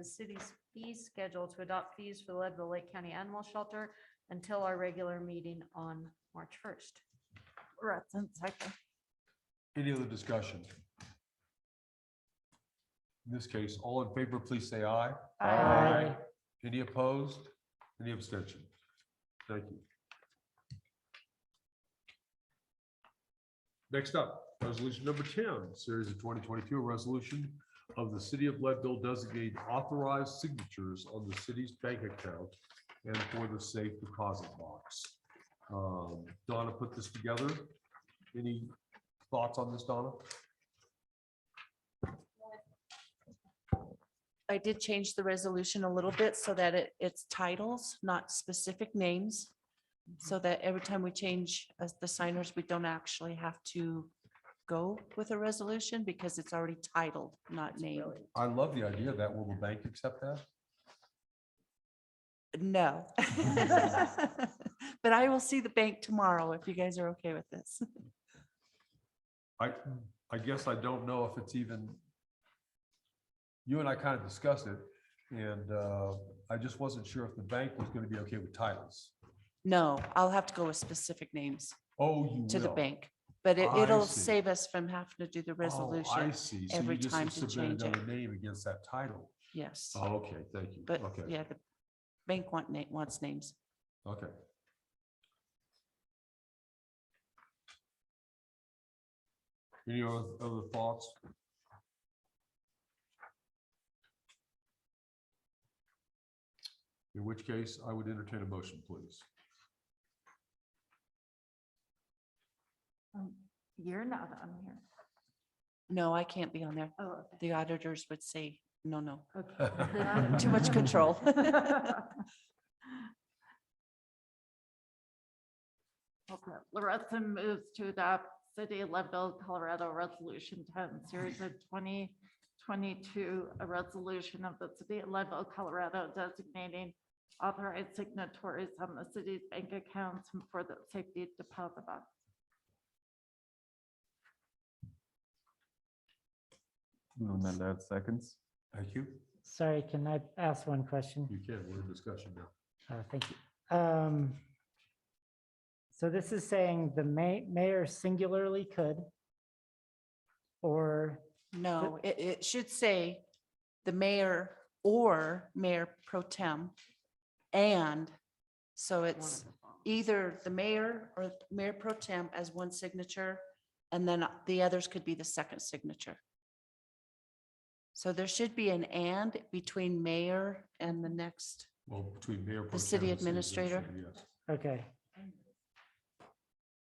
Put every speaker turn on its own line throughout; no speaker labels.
the city's fee schedule to adopt fees for the Leadville Lake County Animal Shelter until our regular meeting on March first.
Right, that's okay.
Any other discussion? In this case, all in favor, please say aye.
Aye. Aye.
Any opposed? Any abstention? Thank you. Next up, resolution number ten, series of twenty twenty-two, a resolution of the city of Leadville designating authorized signatures on the city's bank account and for the safe deposit box. Um, Donna put this together. Any thoughts on this, Donna?
I did change the resolution a little bit so that it, it's titles, not specific names. So that every time we change as the signers, we don't actually have to go with a resolution because it's already titled, not named.
I love the idea of that. Will the bank accept that?
No. But I will see the bank tomorrow if you guys are okay with this.
I, I guess I don't know if it's even, you and I kind of discussed it, and uh, I just wasn't sure if the bank was going to be okay with titles.
No, I'll have to go with specific names
Oh, you will.
to the bank, but it-
I
it'll
see.
save us from having to do the
Oh, I
resolution.
see. So
every
you just
time to
submit
change it.
another name against that title.
Yes,
Oh, okay, thank you.
but
Okay,
yeah, the bank want, na- wants names.
okay. Any other other thoughts? In which case, I would entertain a motion, please.
Oh,
You're not on here.
No, I can't be on there.
Oh,
The auditors would say, no, no,
okay.
too much control.
Okay, Loretto moves to adopt City of Leadville, Colorado Resolution ten, series of twenty twenty-two, a resolution of the City of Leadville, Colorado designating authorized signatories on the city's bank accounts and for the safety deposit box.
Mandad seconds.
Thank you.
Sorry, can I ask one question?
You can, we're in discussion now.
Uh, Thank you. Um, So this is saying the ma- mayor singularly could, or,
No, it, it should say the mayor or mayor pro tem. And so it's either the mayor or mayor pro tem as one signature. And then the others could be the second signature. So there should be an and between mayor and the next.
Well, between mayor. pro
The city
tem and
administrator?
yes.
okay.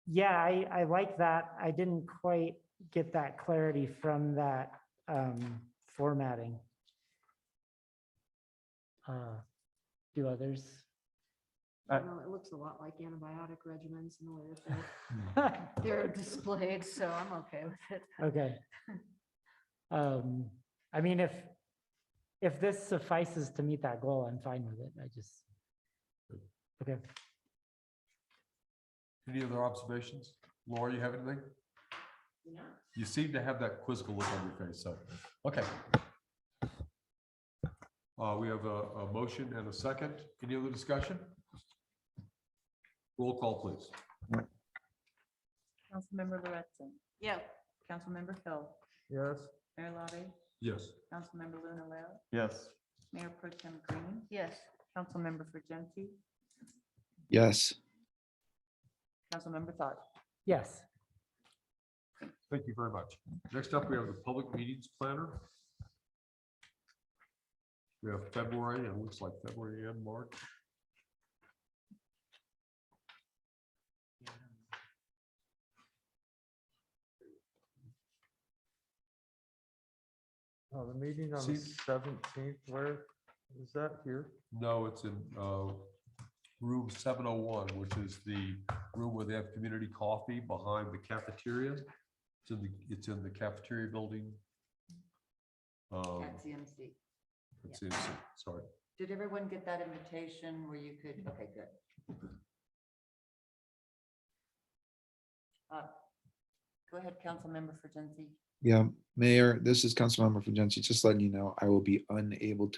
Yeah, I, I like that. I didn't quite get that clarity from that um, formatting. Uh, Do others?
I-
No, it looks a lot like antibiotic regimens and the way that they're- they're displayed, so I'm okay with it.
Okay. Um, I mean, if, if this suffices to meet that goal, I'm fine with it. I just. Okay,
Any other observations? Laura, you have anything? You seem to have that quizzical look on your face, so, okay. Uh, we have a, a motion and a second. Any other discussion? Roll call, please.
Councilmember Loretson.
Yeah,
Councilmember Hill.
Yes.
Mayor Lottie.
Yes.
Councilmember Luna Leo.
Yes.
Mayor Pro Tem Green.
Yes.
Councilmember Fergenti.
Yes.
Councilmember Thought.
yes.
Thank you very much. Next up, we have the public meetings planner. We have February, it looks like February and March.
Oh, the meeting on the
See-
seventeenth, where is that here?
No, it's in uh, room seven oh one, which is the room where they have community coffee behind the cafeteria. It's in the, it's in the cafeteria building. Um,
That's the MC.
it's in- Sorry,
Did everyone get that invitation where you could, okay, good. Uh, Go ahead, Councilmember Fergenti.
Yeah, Mayor, this is Councilmember Fujensi. Just letting you know, I will be unable to